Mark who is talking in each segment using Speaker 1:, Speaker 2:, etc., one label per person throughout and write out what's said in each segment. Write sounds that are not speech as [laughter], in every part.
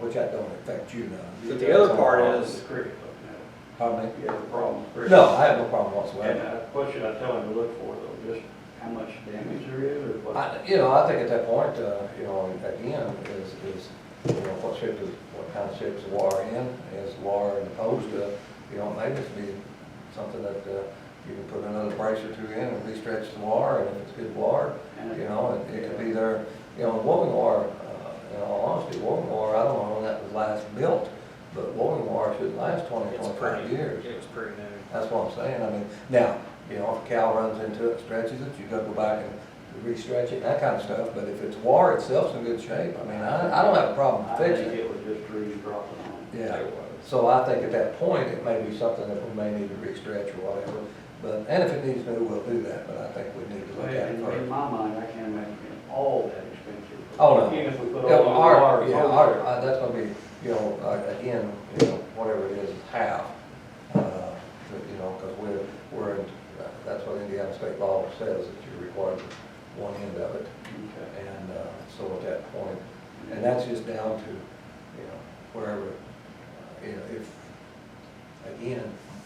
Speaker 1: which that don't affect you none.
Speaker 2: But the other part
Speaker 3: The
Speaker 2: is,
Speaker 3: cricket looking
Speaker 1: Pardon
Speaker 3: at it. You have a problem with
Speaker 1: me?
Speaker 3: cricket.
Speaker 1: No, I have no problem
Speaker 3: And
Speaker 1: whatsoever.
Speaker 3: uh, what should I tell him to look for though, just how much damage there is or what?
Speaker 1: I, you know, I think at that point, uh, you know, again, is, is, you know, what shape is, what kind of shape is the water in? Is water in the post, uh, you know, maybe it's be something that, uh, you can put another brace or two in and re-stretch the water, and if it's good water,
Speaker 3: And
Speaker 1: you
Speaker 3: it-
Speaker 1: know, it, it could be there, you know, Woven War, uh, in all honesty, Woven War, I don't know when that was last built, but Woven War should last twenty,
Speaker 2: it's
Speaker 1: twenty-five
Speaker 2: pretty,
Speaker 1: years.
Speaker 2: it was pretty new.
Speaker 1: That's what I'm saying, I mean, now, you know, if a cow runs into it, stretches it, you gotta go back and re-stretch it, and that kind of stuff, but if it's war itself's in good shape, I mean, I, I don't have a problem
Speaker 3: I think
Speaker 1: fixing it.
Speaker 3: it was just trees dropping on it.
Speaker 1: Yeah,
Speaker 2: It was.
Speaker 1: so I think at that point, it may be something that we may need to re-stretch or whatever, but, and if it needs new, we'll do that, but I think we need to look
Speaker 3: But
Speaker 1: at it
Speaker 3: in,
Speaker 1: first.
Speaker 3: in my mind, I can't imagine it all that expensive.
Speaker 1: Oh, no.
Speaker 3: Even if we put
Speaker 1: Yeah,
Speaker 3: all the
Speaker 1: our-
Speaker 3: wires
Speaker 1: Yeah,
Speaker 3: over
Speaker 1: our,
Speaker 3: it.
Speaker 1: uh, that's gonna be, you know, uh, again, you know, whatever it is, it's half, uh, but, you know, because we're, we're, in- that's what Indiana state law says, that you're required to one end of it,
Speaker 3: Okay.
Speaker 1: and, uh, so at that point, and that's just down to, you know, wherever, uh, you know, if, again,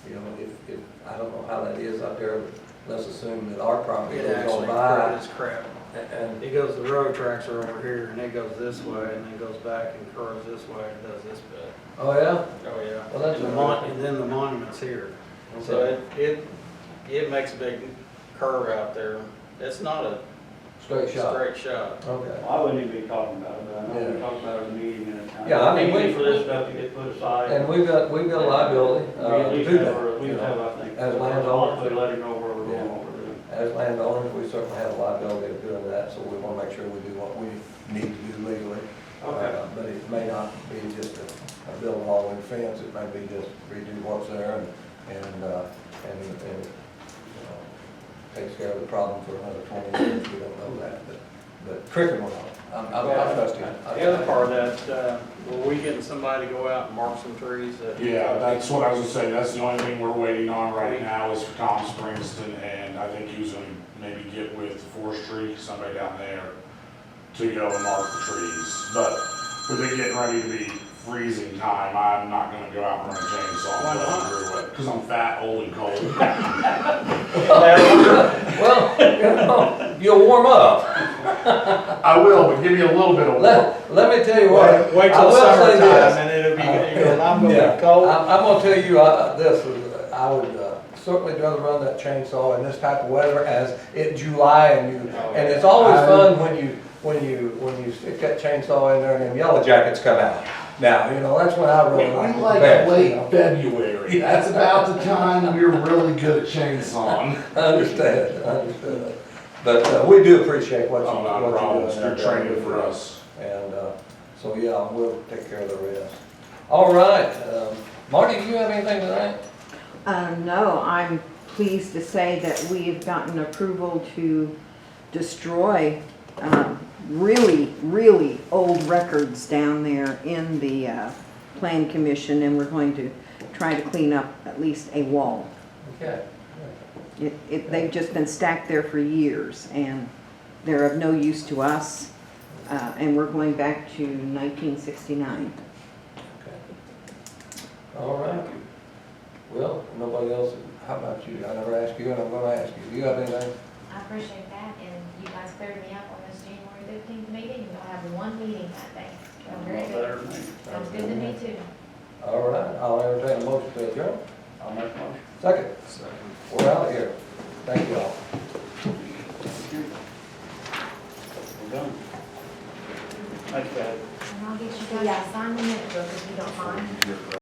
Speaker 1: you know, if, if, I don't know how that is up there, let's assume that our property
Speaker 2: It
Speaker 1: goes on
Speaker 2: actually,
Speaker 1: by,
Speaker 2: it is crap.
Speaker 1: a- and,
Speaker 2: It goes, the road tracks are over here, and it goes this way, and then goes back and curves this way, and does this bit.
Speaker 1: oh, yeah?
Speaker 2: Oh, yeah.
Speaker 1: Well, that's
Speaker 2: And the
Speaker 1: a-
Speaker 2: mon, and then the monument's here. So
Speaker 1: Okay.
Speaker 2: it, it, it makes a big curve out there. It's not a
Speaker 1: Straight shot.
Speaker 2: straight shot.
Speaker 1: Okay.
Speaker 3: Well, I wouldn't even be talking about it, but I know
Speaker 1: Yeah.
Speaker 3: we talked about it in the meeting and it's kind of.
Speaker 1: Yeah, I mean, we-
Speaker 3: Waiting for this stuff to get put aside.
Speaker 1: And we've got, we've got a liability,
Speaker 3: We
Speaker 1: uh,
Speaker 3: at
Speaker 1: to
Speaker 3: least
Speaker 1: do
Speaker 3: have, our-
Speaker 1: that,
Speaker 3: we
Speaker 1: you
Speaker 3: have,
Speaker 1: know.
Speaker 3: I think.
Speaker 1: As landowner.
Speaker 3: possibly let him know where we're going
Speaker 1: Yeah.
Speaker 3: over there.
Speaker 1: As landowners, we certainly have a liability of doing that, so we wanna make sure we do what we need to do legally.
Speaker 3: Okay.
Speaker 1: Uh, But it may not be just a, a build wall and fence, it may be just redo what's there and, and, uh, and, and, you know, takes care of the problem for another twenty years, we don't know that, but, but cricket will help. I'm, I'm I'm trusting.
Speaker 2: The other part of that, uh, were we getting somebody to go out and mark some trees that?
Speaker 4: Yeah, that's what I was gonna say, that's the only thing we're waiting on right now is for Tom Springston, and I think he was gonna maybe get with forestry, somebody down there, to go and mark the trees, but with it getting ready to be freezing time, I'm not gonna go out and run a chainsaw.
Speaker 2: Why not?
Speaker 4: Because I'm fat, old, and cold. [laughs]
Speaker 1: Well, [laughs] you know, you'll warm up.
Speaker 4: I will, but give me a little bit of warmth.
Speaker 1: Let, let me [laughs] tell you what.
Speaker 2: Wait
Speaker 1: I
Speaker 2: till
Speaker 1: will say this. Uh,
Speaker 2: summertime, and it'll be, you know, I'm gonna
Speaker 1: Yeah.
Speaker 2: be cold.
Speaker 1: I'm, I'm gonna tell you, uh, this, uh, I would uh, certainly rather run that chainsaw in this type of weather as it July and you, and it's always
Speaker 4: I-
Speaker 1: fun when you, when you, when you stick that chainsaw in there and them yellow jackets come out. Now, you know, that's when I
Speaker 4: We
Speaker 1: really like it
Speaker 4: like
Speaker 1: best, you
Speaker 4: late
Speaker 1: know.
Speaker 4: February, that's about the time we're really good at [laughs] chainsawing.
Speaker 1: I understand, I understand. But, uh, we do appreciate what you,
Speaker 4: Oh,
Speaker 1: what
Speaker 4: not a
Speaker 1: you do.
Speaker 4: problem, you're training for us.
Speaker 1: And, uh, so, yeah, we'll take care of the rest. All right, um, Marty, do you have anything tonight?
Speaker 5: Um, no, I'm pleased to say that we have gotten approval to destroy, um, really, really old records down there in the, uh, plan commission, and we're going to try to clean up at least a wall.
Speaker 1: Okay.
Speaker 5: It, it, they've just been stacked there for years, and they're of no use to us, uh, and we're going back to nineteen sixty-nine.
Speaker 1: All right. Well, nobody else, how about you? I never asked you, and I'm gonna ask you. Do you have anything?
Speaker 6: I appreciate that, and you guys cleared me up on this January fifteenth meeting, you'll have one meeting that day. So very
Speaker 3: Better
Speaker 6: good.
Speaker 3: than me.
Speaker 6: Sounds good to me too.
Speaker 1: All right, I'll entertain a motion to adjourn.
Speaker 3: I'll make one.
Speaker 1: Second,
Speaker 2: So-
Speaker 1: we're out of here. Thank you all.
Speaker 3: We're done. Thanks, Pat.
Speaker 6: And I'll get you guys to sign the minute book if you don't mind.